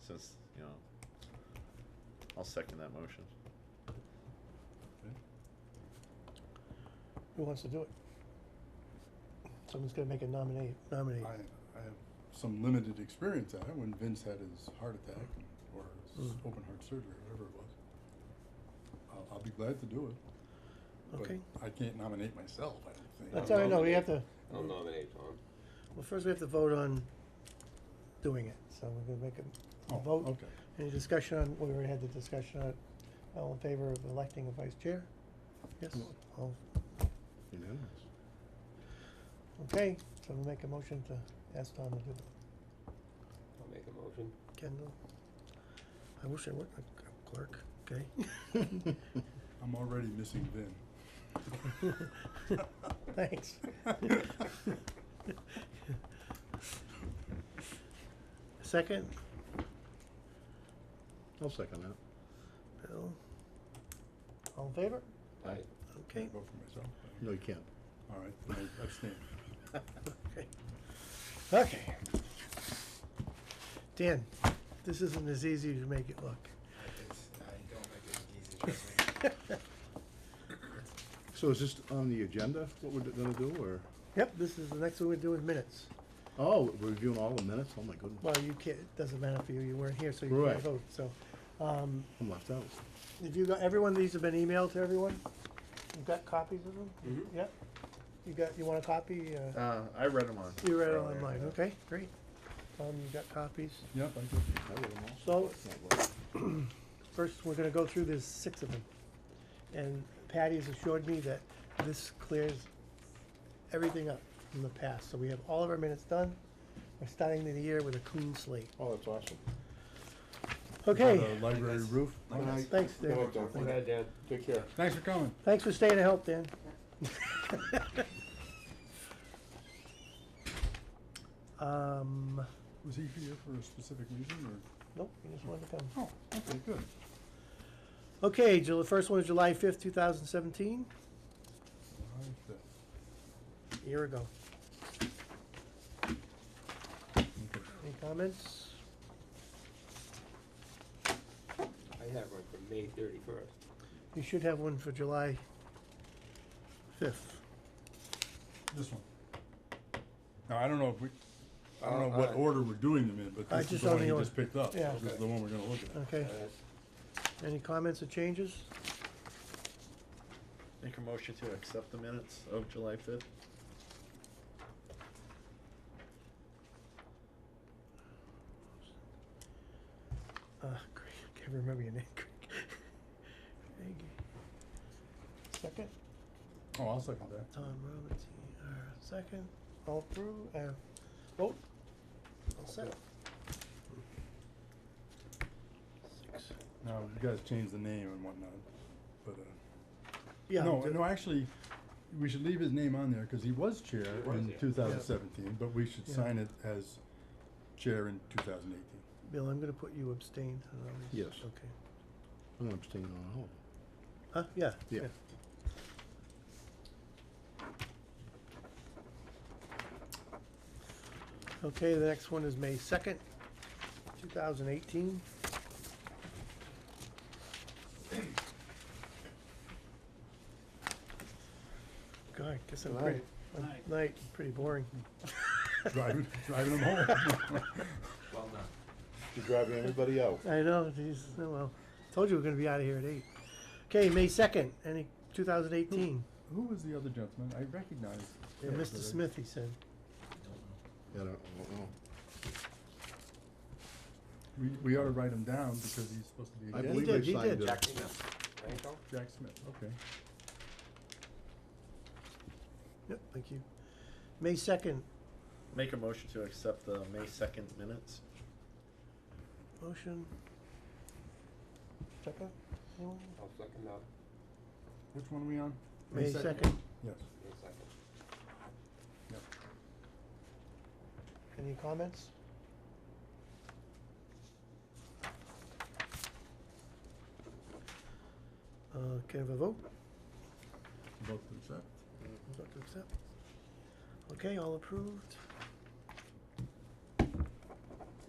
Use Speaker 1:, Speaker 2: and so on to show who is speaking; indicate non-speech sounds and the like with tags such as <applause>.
Speaker 1: since, you know, I'll second that motion.
Speaker 2: Who wants to do it? Someone's gonna make a nominate, nominate.
Speaker 3: I, I have some limited experience at it when Vince had his heart attack or his
Speaker 2: Mm.
Speaker 3: open heart surgery, whatever it was. I'll, I'll be glad to do it. but
Speaker 2: Okay,
Speaker 3: I can't nominate myself, I don't think.
Speaker 2: that's all
Speaker 4: I'll
Speaker 2: I know, we have to,
Speaker 4: nominate. I'll nominate Tom.
Speaker 2: well, first we have to vote on doing it, so we're gonna make a- a
Speaker 3: Oh,
Speaker 2: vote.
Speaker 3: Okay.
Speaker 2: Any discussion on, we already had the discussion on, it. all in favor of electing a vice chair? Yes, all,
Speaker 3: Unanimous.
Speaker 2: okay, so we'll make a motion to ask Tom to do it.
Speaker 4: I'll make a motion.
Speaker 2: Kendall? I wish I were a clerk, okay? <laughs>
Speaker 3: I'm already missing Vin.
Speaker 2: <laughs>
Speaker 3: <laughs>
Speaker 2: Thanks. <laughs> Second,
Speaker 1: I'll second that.
Speaker 2: Bill? All in favor?
Speaker 1: Aye.
Speaker 2: Okay, <laughs>
Speaker 3: Can't vote for myself.
Speaker 1: No, you can't.
Speaker 3: All right, then I abstain.
Speaker 2: okay. Okay. Dan, this isn't as easy as you make it look. <laughs>
Speaker 5: It's, I don't think it's easy, trust me.
Speaker 1: So is this on the agenda, what we're gonna do, or,
Speaker 2: Yep, this is, the next one we're doing minutes.
Speaker 1: oh, we're reviewing all the minutes, oh my goodness,
Speaker 2: Well, you can't, it doesn't matter for you, you weren't here, so you can't
Speaker 1: Right.
Speaker 2: vote, so. Um,
Speaker 1: I'm left out.
Speaker 2: If you got, everyone, these have been emailed to everyone? You've got copies of them?
Speaker 4: Mhm.
Speaker 1: Mm-hmm.
Speaker 2: Yep. You got, you want a copy? Uh,
Speaker 5: Uh, I read them on.
Speaker 2: You read it
Speaker 5: earlier,
Speaker 2: online,
Speaker 5: yeah.
Speaker 2: okay, great. Tom, you got copies?
Speaker 3: Yep, I did.
Speaker 1: I wrote 'em all.
Speaker 2: So, <clears throat>
Speaker 1: It's not like-
Speaker 2: first, we're gonna go through, there's six of them. And Patty has assured me that this clears everything up from the past, so we have all of our minutes done. We're starting the year with a clean slate.
Speaker 1: Oh, that's awesome.
Speaker 2: Okay,
Speaker 3: The library roof.
Speaker 2: thanks, Dan.
Speaker 4: Good night, Dan. Take care.
Speaker 3: Thanks for coming.
Speaker 2: Thanks for staying to help, Dan. Um,
Speaker 3: Was he here for a specific reason
Speaker 2: nope, he just wanted to come.
Speaker 3: or? Oh, okay, good.
Speaker 2: Okay, Ju- the first one is July fifth, two thousand seventeen,
Speaker 3: All right, then.
Speaker 2: a year ago.
Speaker 3: Okay.
Speaker 2: Any comments?
Speaker 4: I have one from May thirty-first.
Speaker 2: You should have one for July fifth.
Speaker 3: This one. Now, I don't know if we, I don't know
Speaker 4: Uh,
Speaker 3: what
Speaker 4: I-
Speaker 3: order we're doing them in, but
Speaker 2: I
Speaker 3: this is
Speaker 2: just
Speaker 3: the one
Speaker 2: only
Speaker 3: he
Speaker 2: or-
Speaker 3: just picked up.
Speaker 2: yeah.
Speaker 3: This is the one we're gonna look at.
Speaker 4: uh,
Speaker 2: Okay, any comments or changes?
Speaker 1: Make a motion to accept the minutes of July fifth?
Speaker 2: Uh, Craig, I can't remember your name, <laughs> Craig. Craig. Second,
Speaker 3: Oh, I'll second that.
Speaker 2: Tom Roberts, uh, second, all through, uh, vote. All set. Six.
Speaker 3: Now, you guys changed the name and whatnot, but, uh,
Speaker 2: Yeah,
Speaker 3: no,
Speaker 2: d-
Speaker 3: no, actually, we should leave his name on there, cause he was chair
Speaker 4: He was,
Speaker 3: in
Speaker 4: yeah.
Speaker 3: two thousand seventeen, but we should
Speaker 2: Yeah.
Speaker 3: sign it as chair in two thousand eighteen.
Speaker 2: Bill, I'm gonna put you abstained on all these.
Speaker 1: Yes.
Speaker 2: Okay.
Speaker 1: I'm gonna abstain on all of them.
Speaker 2: Huh, yeah,
Speaker 1: Yeah.
Speaker 2: yeah. Okay, the next one is May second, two thousand eighteen. God, guess I'm pretty, I'm- night, pretty boring.
Speaker 3: Driving, <laughs> driving him home. <laughs>
Speaker 5: Well done.
Speaker 1: You're driving everybody out.
Speaker 2: I know, geez, oh well, told you we're gonna be out of here at eight. Okay, May second, any, two thousand eighteen,
Speaker 3: Who was the other gentleman? I recognize.
Speaker 2: Mr. Smith, he said.
Speaker 1: Yeah, I don't, I don't know.
Speaker 3: We, we ought to write him down because he's supposed to be
Speaker 1: I
Speaker 3: a
Speaker 1: believe
Speaker 3: guest.
Speaker 2: did,
Speaker 1: I
Speaker 2: he
Speaker 1: signed
Speaker 2: did.
Speaker 1: it.
Speaker 5: Jack Smith.
Speaker 4: Franco?
Speaker 3: Jack Smith, okay.
Speaker 2: Yep, thank you. May second,
Speaker 6: Make a motion to accept the May second minutes.
Speaker 2: motion. Second, anyone?
Speaker 4: I'll second that.
Speaker 3: Which one are we on?
Speaker 2: May second,
Speaker 3: Yes.
Speaker 4: May second.
Speaker 3: Yep.
Speaker 2: any comments? Uh, can I have a vote?
Speaker 3: Vote to accept.
Speaker 2: Vote to accept. Okay, all approved.